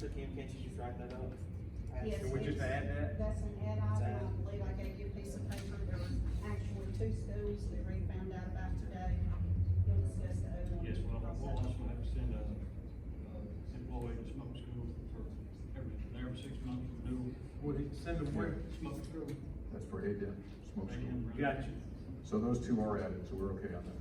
So Kim, can't you just write that up? Yes. Can we just add that? That's an add item, I believe I gave you a piece of paper, there were actually two schools that we found out about today. You'll discuss the other one. Yes, well, I want us to have to send a, uh, employee to smoke school for every, every six months renewal. Would it send them where? Smoke school. That's for Hay Dent Smoke School. Gotcha. So those two are added, so we're okay on that.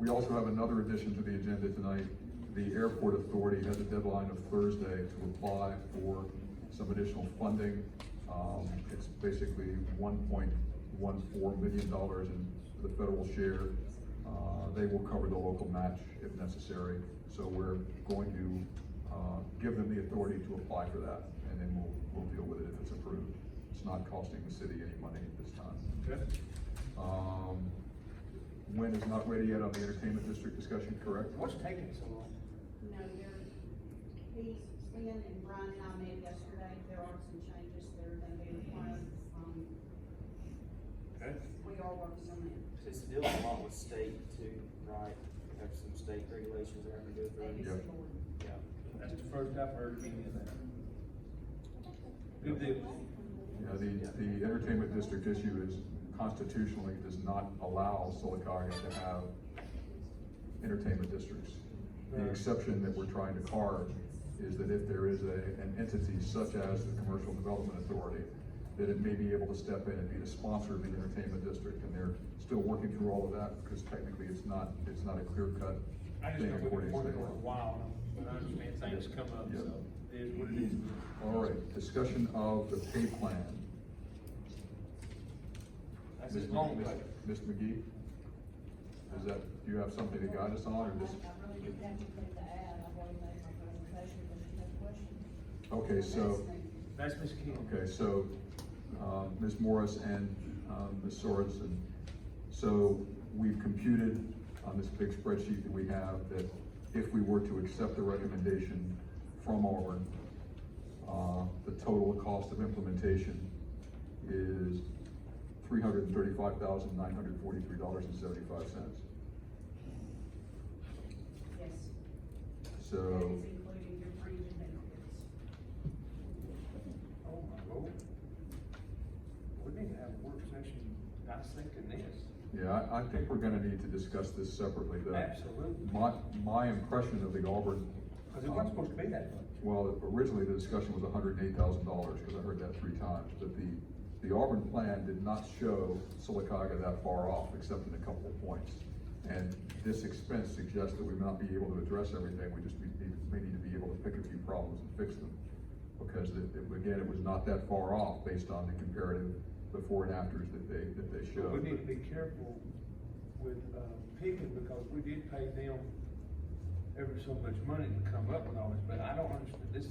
We also have another addition to the agenda tonight. The Airport Authority has a deadline of Thursday to apply for some additional funding. Um, it's basically one point one four million dollars in the federal share. Uh, they will cover the local match if necessary, so we're going to, uh, give them the authority to apply for that, and then we'll, we'll deal with it if it's approved. It's not costing the city any money at this time. Okay. Um, When is not ready yet on the entertainment district discussion, correct? What's taking so long? No, you're, he, Ian and Brian and I met yesterday, there are some changes that are gonna be required, um, Okay. we are working on it. It's dealing a lot with state too, right? We Have some state regulations that have to do That is with Yep. it. the one. Yeah. That's the first I've heard of any of that. Good deal. Yeah, the, the entertainment district issue is constitutionally does not allow Solocaga to have entertainment districts. The exception that we're trying to carve is that if there is a, an entity such as the Commercial Development Authority, that it may be able to step in and be the sponsor of the entertainment district, and they're still working through all of that, because technically it's not, it's not a clear-cut I just thing know we've according been working to state on it law. a while, but I understand things come up, so it is what it is. All right, discussion of the pay plan. That's Ms. as long Mc- as. Ms. McGee? Is that, do you have something to guide us on, or just? I really didn't have anything to add, I've already made my presentation, but you have questions. Okay, so, That's Ms. Kim. okay, so, uh, Ms. Morris and, um, Ms. Sorensen. So we've computed on this big spreadsheet that we have that if we were to accept the recommendation from Auburn, uh, the total cost of implementation is three hundred and thirty-five thousand, nine hundred and forty-three dollars and seventy-five cents. Yes. That So, is including your premium benefits. Oh, my lord. We need to have a work session dissecting this. yeah, I, I think we're gonna need to discuss this separately, though. Absolutely. My, my impression of the Auburn. Cause it wasn't supposed to be that much. Well, originally the discussion was hundred and eight thousand dollars, because I heard that three times, but the, the Auburn plan did not show Silicaga that far off, except in a couple of points. And this expense suggests that we may not be able to address everything, we just be- may need to be able to pick a few problems and fix them. Because it, it- again, it was not that far off based on the comparative before and afters that they, that they showed. We need to be careful with, uh, picking because we did pay them every so much money to come up with all this, but I don't understand this.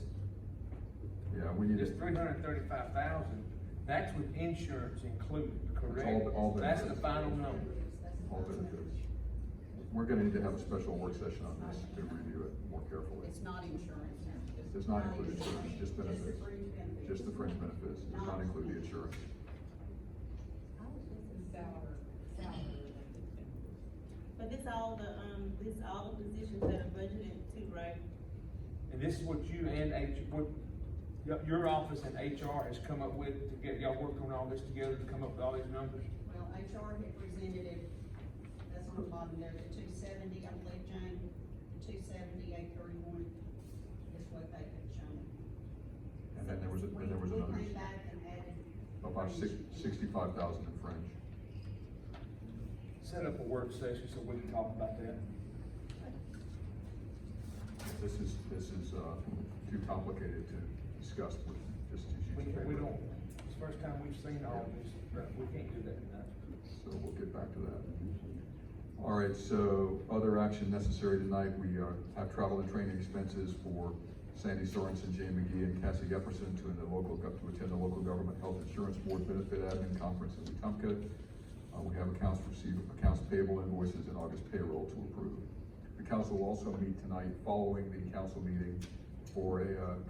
Yeah, we need to. This three hundred and thirty-five thousand, that's with insurance included, all- all correct? the- That's the final number. All benefits. We're gonna need to have a special work session on this to review it more carefully. It's not insurance. Does not include insurance, just benefits, fringe benefits. just the fringe benefits, does not include the insurance. Salary, salary. But this all the, um, this all the positions that are budgeted too, right? And this is what you and H, what, your, your office and HR has come up with to get, y'all working on all this together to come up with all these numbers? Well, HR had presented it, that's on the bottom there, the two seventy, I believe, Jane, the two seventy, eight thirty-one is what they had shown. And then there was, a- then there was We- another, We came back and added. about six, sixty-five thousand in fringe. Set up a work session so we can talk about that. This is, this is, uh, too complicated to discuss with just We, two sheets of we paper. don't, it's the first time we've seen all this, but we can't do that tonight. So we'll get back to that. All right, so other action necessary tonight, we uh, have travel and training expenses for Sandy Sorensen, Jay McGee, and Cassie Epperson to the local, gov- to attend the local government health insurance board benefit admin conference in Wetumpka. Uh, We have accounts receivable, accounts payable invoices and August payroll to approve. The council will also meet tonight following the council meeting for a uh,